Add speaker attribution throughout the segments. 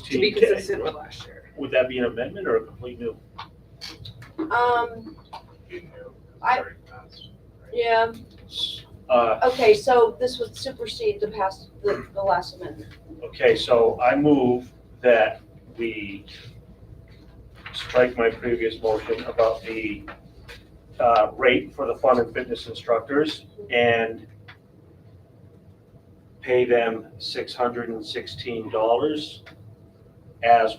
Speaker 1: To be consistent with last year.
Speaker 2: Would that be an amendment or a complete new?
Speaker 3: Um, I- yeah,
Speaker 2: Uh,
Speaker 3: okay, so this would supersede the past, the, the last amendment.
Speaker 2: okay, so I move that we strike my previous motion about the, uh, rate for the fun and fitness instructors and pay them six hundred and sixteen dollars as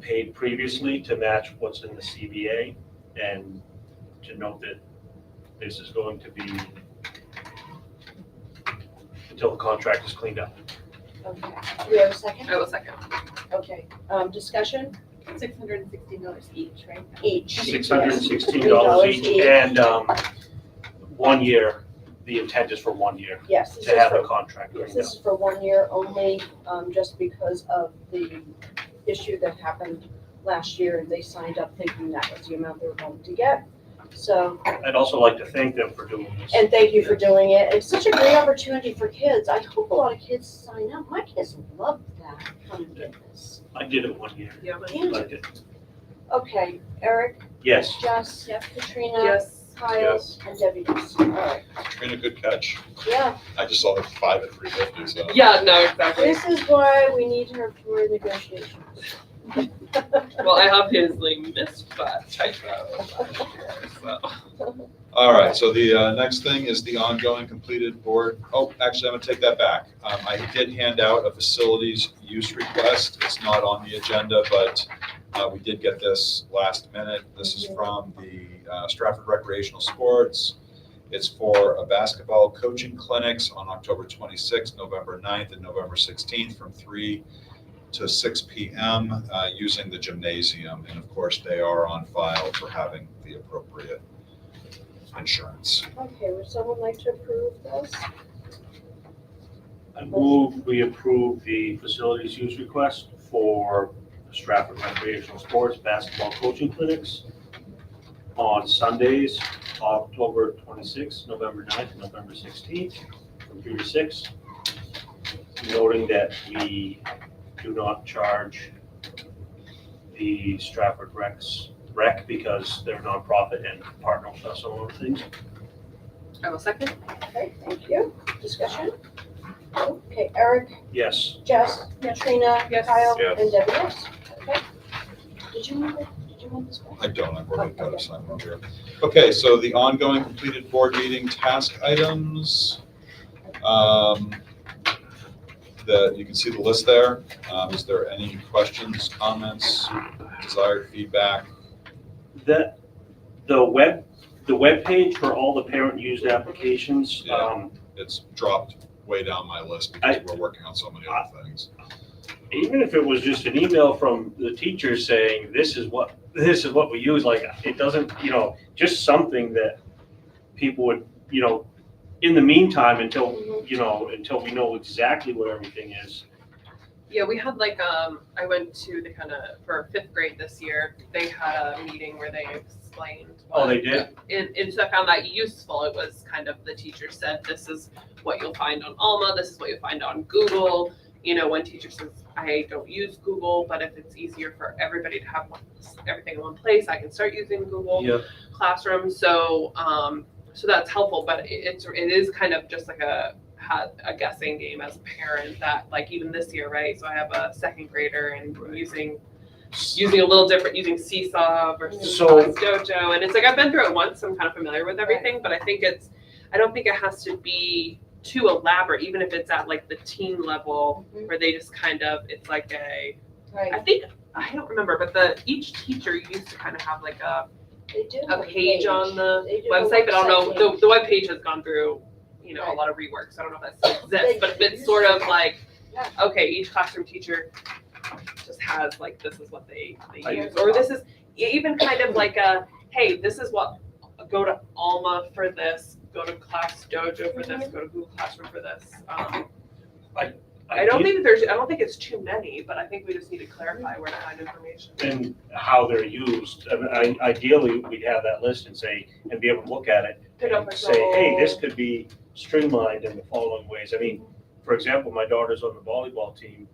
Speaker 2: paid previously to match what's in the CBA and to note that this is going to be until the contract is cleaned up.
Speaker 3: Okay, do we have a second?
Speaker 1: I will Oh, second.
Speaker 3: Okay, um, discussion,
Speaker 4: Six hundred and sixteen dollars each, right?
Speaker 3: H.
Speaker 2: six hundred and sixteen dollars each, and, um, one year, the intent is for one year,
Speaker 3: Yes, this
Speaker 2: to
Speaker 3: is
Speaker 2: have
Speaker 3: for-
Speaker 2: a contract
Speaker 3: Yes,
Speaker 2: cleaned up.
Speaker 3: this is for one year only, um, just because of the issue that happened last year, and they signed up thinking that was the amount they were going to get. So,
Speaker 2: I'd also like to thank them for doing this.
Speaker 3: and thank you for doing it, it's such a great opportunity for kids, I hope a lot of kids sign up, my kids love that kind of fitness.
Speaker 2: I did it one year,
Speaker 1: Yeah.
Speaker 2: liked it.
Speaker 3: Okay, Eric,
Speaker 2: Yes,
Speaker 3: Jess, Katrina,
Speaker 1: Yes.
Speaker 3: Kyle,
Speaker 2: Yes.
Speaker 3: and Debbie, yes, alright,
Speaker 5: Been a good catch.
Speaker 3: yeah,
Speaker 5: I just saw like five at three fifty, so.
Speaker 1: Yeah, no, exactly.
Speaker 3: this is why we need her for negotiations.
Speaker 1: Well, I obviously missed that typo. So,
Speaker 5: All right, so the uh, next thing is the ongoing completed board, oh, actually, I'm gonna take that back. Um, I did hand out a facilities use request. It's not on the agenda, but uh, we did get this last minute. This is from the uh, Stratford Recreational Sports. It's for a basketball coaching clinics on October 26th, November 9th, and November 16th from three to six PM uh, using the gymnasium. And of course, they are on file for having the appropriate insurance.
Speaker 3: Okay, would someone like to approve this?
Speaker 2: I move we approve the facilities use request for Stratford recreational sports basketball coaching clinics on Sundays, October twenty-sixth, November 9th, and November sixteenth, from three to six. Noting that we do not charge the Stratford Recs, rec, because they're nonprofit and partner with us on those things.
Speaker 1: I will Oh, second.
Speaker 3: Okay, thank you. Discussion? Okay, Eric,
Speaker 2: Yes.
Speaker 3: Jess, Katrina,
Speaker 1: Yes.
Speaker 3: Kyle,
Speaker 2: Yes.
Speaker 3: and Debbie, yes. Okay. Did you want, did you want this one?
Speaker 5: I don't, I've already got
Speaker 3: Okay.
Speaker 5: a sign up here. Okay, so the ongoing completed board meeting task items. Um, The, you can see the list there. Um, Is there any questions, comments, desired feedback?
Speaker 2: That, the web, the webpage for all the parent-used applications, um,
Speaker 5: It's dropped way down my list because
Speaker 2: I-
Speaker 5: we're working on so many other things.
Speaker 2: even if it was just an email from the teacher saying, this is what, this is what we use, like, it doesn't, you know, just something that people would, you know, in the meantime, until,
Speaker 1: Mm-hmm.
Speaker 2: you know, until we know exactly what everything is.
Speaker 1: Yeah, we had like, um, I went to the kind of, for fifth grade this year, they had a meeting where they explained.
Speaker 2: Oh,
Speaker 1: what-
Speaker 2: they did?
Speaker 1: And, and so I found that useful. It was kind of, the teacher said, this is what you'll find on Alma, this is what you'll find on Google. You know, one teacher says, I don't use Google, but if it's easier for everybody to have one, everything in one place, I can start using Google
Speaker 2: Yeah.
Speaker 1: classroom. So, um, so that's helpful, but it- it's, it is kind of just like a, had a guessing game as a parent that like even this year, right? So I have a second grader and I'm using, using a little different, using Seesaw versus
Speaker 2: So-
Speaker 1: Saw's Dojo. And it's like, I've been through it once, so I'm kind of familiar with everything, but I think it's, I don't think it has to be too elaborate, even if it's at like the teen level
Speaker 3: Mhm.
Speaker 1: where they just kind of, it's like a, I
Speaker 3: Right,
Speaker 1: think, I don't remember, but the, each teacher used to kind of have like a,
Speaker 3: they do.
Speaker 1: a
Speaker 3: have
Speaker 1: page on the
Speaker 3: They do have a
Speaker 1: website, but I don't know, the,
Speaker 3: website
Speaker 1: the webpage has gone through, you know, a lot of rework, so I don't know if that still exists, but it's sort of like,
Speaker 3: Yeah.
Speaker 1: okay, each classroom teacher just has like, this is what they,
Speaker 2: I-
Speaker 1: they use, or this is, e- even kind of like a, hey, this is what, go to Alma for this, go to Class Dojo for this, go to Google Classroom for this. Um, I don't
Speaker 2: did-
Speaker 1: think that there's, I don't think it's too many, but I think we just need to clarify where to find information.
Speaker 2: And how they're used, I mean, I, ideally, we'd have that list and say, and be able to look at it,
Speaker 1: Pick up
Speaker 2: and
Speaker 1: a
Speaker 2: say, hey, this
Speaker 1: goal.
Speaker 2: could be streamlined in the following ways. I mean, for example, my daughter's on the volleyball team